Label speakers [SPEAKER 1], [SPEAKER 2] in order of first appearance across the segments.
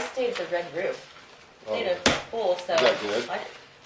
[SPEAKER 1] saved the red roof.
[SPEAKER 2] Oh.
[SPEAKER 1] They had a pool, so.
[SPEAKER 2] Is that good?
[SPEAKER 1] I-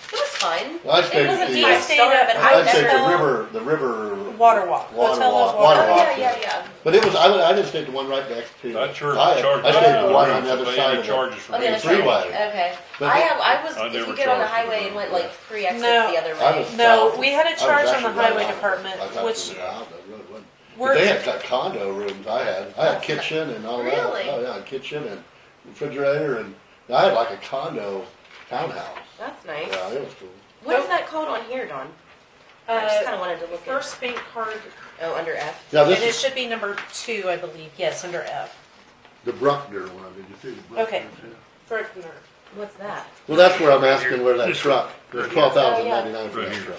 [SPEAKER 1] It was fine.
[SPEAKER 2] Well, I'd
[SPEAKER 1] It
[SPEAKER 2] take
[SPEAKER 1] wasn't
[SPEAKER 2] the,
[SPEAKER 1] five
[SPEAKER 2] uh,
[SPEAKER 3] Yes.
[SPEAKER 1] star, but I
[SPEAKER 2] I'd take the
[SPEAKER 1] never-
[SPEAKER 2] river, the river.
[SPEAKER 3] Water walk.
[SPEAKER 2] Water
[SPEAKER 3] Hotel
[SPEAKER 2] walk,
[SPEAKER 3] of
[SPEAKER 2] water
[SPEAKER 1] Oh,
[SPEAKER 2] walk.
[SPEAKER 1] yeah, yeah, yeah.
[SPEAKER 2] But it was, I, I just take the one right next to.
[SPEAKER 4] That church
[SPEAKER 2] I-
[SPEAKER 4] charges
[SPEAKER 2] I
[SPEAKER 4] us
[SPEAKER 2] take
[SPEAKER 4] for
[SPEAKER 2] the
[SPEAKER 4] the
[SPEAKER 2] one on
[SPEAKER 4] roof,
[SPEAKER 2] the
[SPEAKER 4] but
[SPEAKER 2] other
[SPEAKER 4] they
[SPEAKER 2] side
[SPEAKER 4] didn't
[SPEAKER 2] of
[SPEAKER 4] charge
[SPEAKER 2] it.
[SPEAKER 4] us for
[SPEAKER 1] Oh, the other
[SPEAKER 4] the
[SPEAKER 1] side,
[SPEAKER 2] Three way.
[SPEAKER 1] okay.
[SPEAKER 2] But
[SPEAKER 1] I
[SPEAKER 2] it-
[SPEAKER 1] have, I was,
[SPEAKER 4] I
[SPEAKER 1] if you
[SPEAKER 4] never
[SPEAKER 1] get on the
[SPEAKER 4] charged
[SPEAKER 1] highway
[SPEAKER 4] them.
[SPEAKER 1] and went like three exits
[SPEAKER 3] No.
[SPEAKER 1] the other
[SPEAKER 2] I
[SPEAKER 1] way.
[SPEAKER 2] was
[SPEAKER 3] No,
[SPEAKER 2] south.
[SPEAKER 3] we had a
[SPEAKER 2] I was
[SPEAKER 3] charge on
[SPEAKER 2] actually
[SPEAKER 3] the
[SPEAKER 2] right
[SPEAKER 3] highway
[SPEAKER 2] on it.
[SPEAKER 3] department,
[SPEAKER 2] I thought
[SPEAKER 3] which
[SPEAKER 2] it was out of the road, wasn't it? But
[SPEAKER 3] We're-
[SPEAKER 2] They had got condo rooms I had. I had
[SPEAKER 1] That's not-
[SPEAKER 2] kitchen and all that.
[SPEAKER 1] Really?
[SPEAKER 2] Oh, yeah, kitchen and refrigerator and, I had like a condo townhouse.
[SPEAKER 1] That's nice.
[SPEAKER 2] Yeah, it was cool.
[SPEAKER 1] What is that called on here, Dawn? I just
[SPEAKER 3] Uh,
[SPEAKER 1] kinda wanted to look at,
[SPEAKER 3] first bank card,
[SPEAKER 1] oh, under F.
[SPEAKER 2] Yeah,
[SPEAKER 3] and
[SPEAKER 2] this
[SPEAKER 3] it
[SPEAKER 2] is
[SPEAKER 3] should be number two, I believe, yes, under F.
[SPEAKER 2] the Bruckner one. Did you see the Bruckner?
[SPEAKER 3] Okay.
[SPEAKER 2] too?
[SPEAKER 3] Bruckner.
[SPEAKER 1] What's that?
[SPEAKER 2] Well, that's where I'm asking where that
[SPEAKER 4] This
[SPEAKER 2] truck, there's
[SPEAKER 4] Right here.
[SPEAKER 2] twelve thousand ninety-nine for
[SPEAKER 4] Right
[SPEAKER 2] that
[SPEAKER 4] here.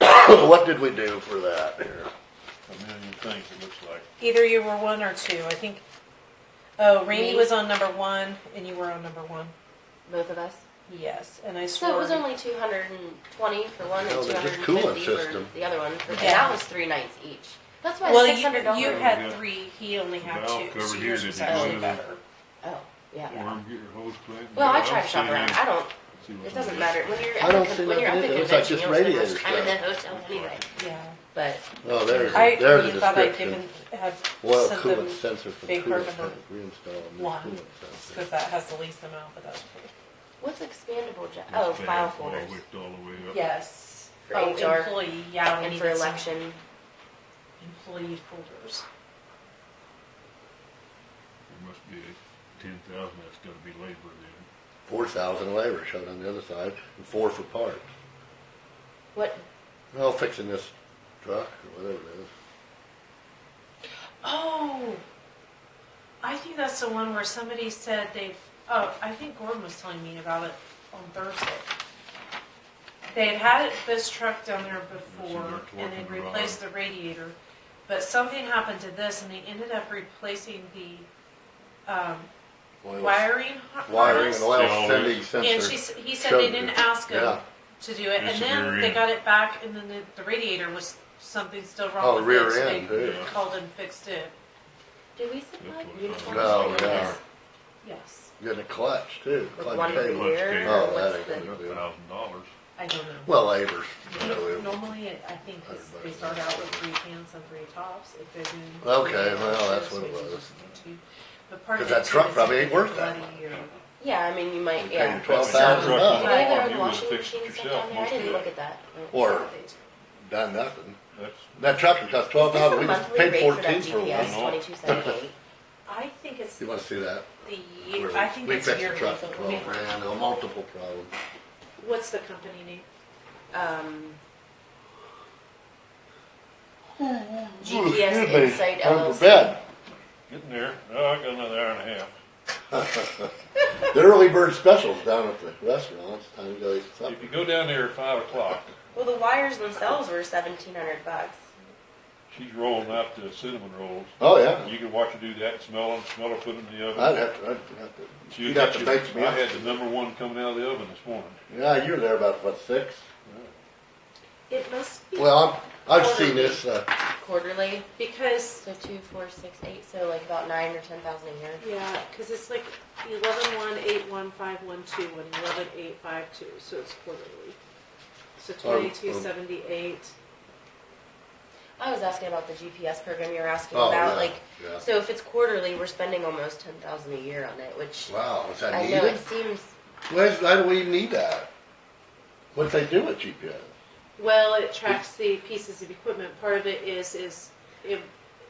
[SPEAKER 2] truck. What did we do for that here?
[SPEAKER 4] A million things, it looks like.
[SPEAKER 3] Either you were one or two, I think. Oh, Randy
[SPEAKER 1] Me?
[SPEAKER 3] was on number one, and you were on number one,
[SPEAKER 1] Both of us?
[SPEAKER 3] yes, and I swore.
[SPEAKER 1] So it was only two hundred and twenty for one
[SPEAKER 2] No,
[SPEAKER 1] and two
[SPEAKER 2] they're
[SPEAKER 1] hundred
[SPEAKER 2] just
[SPEAKER 1] and
[SPEAKER 2] cooling
[SPEAKER 1] fifty for
[SPEAKER 2] system.
[SPEAKER 1] the other one. And
[SPEAKER 3] Yeah.
[SPEAKER 1] that was three nights each. That's why
[SPEAKER 3] Well,
[SPEAKER 1] six
[SPEAKER 3] you,
[SPEAKER 1] hundred dollars.
[SPEAKER 3] you
[SPEAKER 4] Yeah.
[SPEAKER 3] had three, he only had
[SPEAKER 4] Valve
[SPEAKER 3] two, so
[SPEAKER 4] cover here
[SPEAKER 3] yours
[SPEAKER 4] that
[SPEAKER 3] was
[SPEAKER 4] you
[SPEAKER 3] actually
[SPEAKER 4] wanted to
[SPEAKER 3] better.
[SPEAKER 1] Oh, yeah.
[SPEAKER 4] worm, get your hose clean.
[SPEAKER 1] Well, I
[SPEAKER 4] I'll
[SPEAKER 1] try to shop
[SPEAKER 4] see
[SPEAKER 1] around.
[SPEAKER 4] you.
[SPEAKER 1] I don't,
[SPEAKER 4] See what's
[SPEAKER 1] it doesn't
[SPEAKER 4] on
[SPEAKER 1] matter. When you're,
[SPEAKER 2] I
[SPEAKER 1] at
[SPEAKER 2] don't
[SPEAKER 1] the
[SPEAKER 2] see
[SPEAKER 1] con- when you're at
[SPEAKER 2] nothing in
[SPEAKER 1] the
[SPEAKER 2] it. It looks like
[SPEAKER 1] convention,
[SPEAKER 2] just
[SPEAKER 1] you don't
[SPEAKER 2] radiator
[SPEAKER 1] spend much time in the
[SPEAKER 2] stuff.
[SPEAKER 1] hotel anyway.
[SPEAKER 3] Yeah.
[SPEAKER 1] But
[SPEAKER 2] Oh, there's,
[SPEAKER 3] I
[SPEAKER 2] a- there's a
[SPEAKER 3] really thought I'd
[SPEAKER 2] description.
[SPEAKER 3] given, had
[SPEAKER 2] Oil
[SPEAKER 3] sent them,
[SPEAKER 2] coolant sensor for the
[SPEAKER 3] big
[SPEAKER 2] coolant
[SPEAKER 3] carbon
[SPEAKER 2] tank, reinstall a new
[SPEAKER 3] one.
[SPEAKER 2] coolant
[SPEAKER 3] because
[SPEAKER 2] sensor.
[SPEAKER 3] that has the least amount, but that's.
[SPEAKER 1] what's expandable, ja-
[SPEAKER 4] this
[SPEAKER 1] oh,
[SPEAKER 4] thing.
[SPEAKER 1] file
[SPEAKER 4] Well, I
[SPEAKER 1] folders
[SPEAKER 4] whipped all the way up.
[SPEAKER 3] Yes.
[SPEAKER 1] For
[SPEAKER 3] Oh,
[SPEAKER 1] HR
[SPEAKER 3] Employee, yeah, we
[SPEAKER 1] and
[SPEAKER 3] need
[SPEAKER 1] for
[SPEAKER 3] some
[SPEAKER 1] election.
[SPEAKER 3] employee folders.
[SPEAKER 4] There must be ten thousand, that's gotta be labor then.
[SPEAKER 2] Four thousand labor showed on the other side, and four for parts.
[SPEAKER 1] What,
[SPEAKER 2] Well, fixing this truck or whatever it is.
[SPEAKER 3] Oh, I think that's the one where somebody said they, oh, I think Gordon was telling me about it on Thursday. They had had this truck down there before
[SPEAKER 4] It's in there
[SPEAKER 3] and they
[SPEAKER 4] twerking around.
[SPEAKER 3] replaced the radiator, but something happened to this and they ended up replacing the, um,
[SPEAKER 2] Oil-
[SPEAKER 3] wiring har-
[SPEAKER 2] Wiring and
[SPEAKER 3] harness.
[SPEAKER 2] oil sending
[SPEAKER 3] And she,
[SPEAKER 2] sensor.
[SPEAKER 3] s- he said they
[SPEAKER 2] showed
[SPEAKER 3] didn't
[SPEAKER 2] it.
[SPEAKER 3] ask him
[SPEAKER 2] Yeah.
[SPEAKER 3] to do it,
[SPEAKER 4] It's
[SPEAKER 3] and
[SPEAKER 4] the
[SPEAKER 3] then
[SPEAKER 4] rear
[SPEAKER 3] they
[SPEAKER 4] end.
[SPEAKER 3] got it back, and then the, the radiator was, something still
[SPEAKER 2] Oh,
[SPEAKER 3] wrong with
[SPEAKER 2] rear
[SPEAKER 3] it, so
[SPEAKER 2] end,
[SPEAKER 3] they
[SPEAKER 2] too.
[SPEAKER 3] called and fixed it,
[SPEAKER 1] do we supply
[SPEAKER 4] That's what it's
[SPEAKER 1] uniforms?
[SPEAKER 4] on.
[SPEAKER 2] No,
[SPEAKER 1] for
[SPEAKER 2] no.
[SPEAKER 1] this?
[SPEAKER 3] yes,
[SPEAKER 2] Getting a clutch too,
[SPEAKER 1] Like
[SPEAKER 2] clutch
[SPEAKER 1] one a
[SPEAKER 2] table.
[SPEAKER 1] year,
[SPEAKER 4] table.
[SPEAKER 1] or
[SPEAKER 2] Oh,
[SPEAKER 1] what's
[SPEAKER 2] that
[SPEAKER 1] the?
[SPEAKER 2] ain't
[SPEAKER 4] A
[SPEAKER 2] gonna do it.
[SPEAKER 4] thousand dollars.
[SPEAKER 3] I don't know.
[SPEAKER 2] Well, labor's. you know,
[SPEAKER 3] Nor-
[SPEAKER 2] it-
[SPEAKER 3] Normally, it- I think it's- they start out with three pants and three tops, if they're doing.
[SPEAKER 2] Okay, well, that's what it was.
[SPEAKER 3] But part of
[SPEAKER 2] 'Cause that
[SPEAKER 3] it too
[SPEAKER 2] truck
[SPEAKER 3] is
[SPEAKER 2] probably
[SPEAKER 3] if
[SPEAKER 2] ain't
[SPEAKER 3] you're
[SPEAKER 2] worth that
[SPEAKER 3] bloody or-
[SPEAKER 1] Yeah, I mean, you might,
[SPEAKER 2] You're
[SPEAKER 1] yeah.
[SPEAKER 2] paying twelve
[SPEAKER 4] Sounds
[SPEAKER 2] thousand
[SPEAKER 4] like
[SPEAKER 1] Do
[SPEAKER 4] you
[SPEAKER 1] they
[SPEAKER 2] bucks.
[SPEAKER 1] have
[SPEAKER 4] want,
[SPEAKER 1] their own
[SPEAKER 4] you would
[SPEAKER 1] washing
[SPEAKER 4] fix it
[SPEAKER 1] machines
[SPEAKER 4] yourself
[SPEAKER 1] down there? I
[SPEAKER 4] most of
[SPEAKER 1] didn't
[SPEAKER 4] that.
[SPEAKER 1] look at that.
[SPEAKER 2] Or done nothing.
[SPEAKER 4] That's,
[SPEAKER 2] That truck would cost
[SPEAKER 1] Is
[SPEAKER 2] twelve
[SPEAKER 1] this
[SPEAKER 2] thousand,
[SPEAKER 1] the
[SPEAKER 2] we just
[SPEAKER 1] monthly
[SPEAKER 2] paid
[SPEAKER 1] rate
[SPEAKER 2] fourteen for
[SPEAKER 1] that GPS
[SPEAKER 2] one.
[SPEAKER 4] one.
[SPEAKER 1] twenty-two seventy-eight?
[SPEAKER 3] I think it's
[SPEAKER 2] You
[SPEAKER 3] the
[SPEAKER 2] wanna see that?
[SPEAKER 3] year, I think
[SPEAKER 2] We
[SPEAKER 3] it's
[SPEAKER 2] fixed
[SPEAKER 3] yearly.
[SPEAKER 2] the truck for
[SPEAKER 3] but
[SPEAKER 2] twelve
[SPEAKER 3] we-
[SPEAKER 2] grand, no multiple problems.
[SPEAKER 3] What's the company name?
[SPEAKER 1] Um,
[SPEAKER 2] Excuse
[SPEAKER 1] GPS
[SPEAKER 2] me,
[SPEAKER 1] Insight
[SPEAKER 2] I'm for
[SPEAKER 1] LLC.
[SPEAKER 2] bed.
[SPEAKER 4] getting there. Oh, I got another hour and a half.
[SPEAKER 2] The early bird specials down at the restaurant, it's time to go eat
[SPEAKER 4] If you
[SPEAKER 2] supper.
[SPEAKER 4] go down there at five o'clock,
[SPEAKER 1] Well, the wires themselves were seventeen hundred bucks.
[SPEAKER 4] she's rolling out the cinnamon rolls.
[SPEAKER 2] Oh, yeah,
[SPEAKER 4] You can watch her do that, smell them, smell her put them in the oven.
[SPEAKER 2] I'd have to, I'd have to,
[SPEAKER 4] She
[SPEAKER 2] you'd
[SPEAKER 4] was
[SPEAKER 2] have to
[SPEAKER 4] actually-
[SPEAKER 2] make me
[SPEAKER 4] I had the
[SPEAKER 2] up.
[SPEAKER 4] number one coming out of the oven this morning.
[SPEAKER 2] Yeah, you were there about, what, six?
[SPEAKER 3] It must be,
[SPEAKER 2] Well, I'm, I've seen this, uh,
[SPEAKER 1] Quarterly,
[SPEAKER 3] because
[SPEAKER 1] so two, four, six, eight, so like about nine or ten thousand a year.
[SPEAKER 3] Yeah, because it's like eleven one eight one five one two and eleven eight five two, so it's quarterly. So
[SPEAKER 2] Um,
[SPEAKER 3] twenty-two seventy-eight.
[SPEAKER 1] I was asking about the GPS program you were asking
[SPEAKER 2] Oh,
[SPEAKER 1] about,
[SPEAKER 2] yeah,
[SPEAKER 1] like,
[SPEAKER 2] yeah.
[SPEAKER 1] so if it's quarterly, we're spending almost ten thousand a year on it, which
[SPEAKER 2] wow, is that
[SPEAKER 1] I know
[SPEAKER 2] needed?
[SPEAKER 1] it seems,
[SPEAKER 2] Why, is- why do we need that? What'd they do with GPS?
[SPEAKER 3] Well, it tracks the pieces of equipment. Part of it is, is if,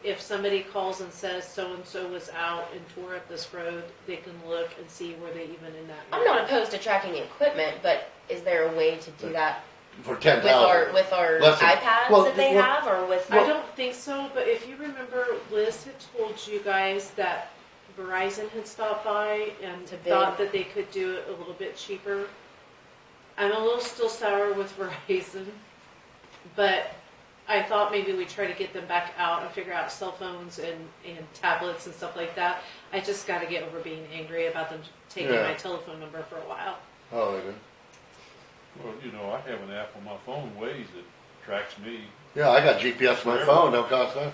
[SPEAKER 3] if somebody calls and says so-and-so was out and tore up this road, they can look and see were they even in that.
[SPEAKER 1] I'm not opposed to tracking equipment, but is there a way to do that
[SPEAKER 2] For ten
[SPEAKER 1] with our,
[SPEAKER 2] thousand?
[SPEAKER 1] with our
[SPEAKER 2] Listen, well,
[SPEAKER 1] iPads that they
[SPEAKER 2] well-
[SPEAKER 1] have, or with?
[SPEAKER 3] I don't think so, but if you remember, Liz had told you guys that Verizon had stopped by and
[SPEAKER 1] To bid.
[SPEAKER 3] thought that they could do it a little bit cheaper. I'm a little still sour with Verizon, but I thought maybe we try to get them back out and figure out cell phones and, and tablets and stuff like that. I just gotta get over being angry about them taking
[SPEAKER 2] Yeah.
[SPEAKER 3] my telephone number for a while.
[SPEAKER 2] Oh, they did.
[SPEAKER 4] Well, you know, I have an app on my phone, Waze, that tracks me.
[SPEAKER 2] Yeah, I got GPS on my phone, no cost nothing.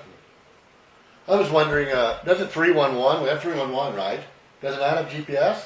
[SPEAKER 2] I was wondering, uh, does it three one one, we have three one one, right? Doesn't that have GPS?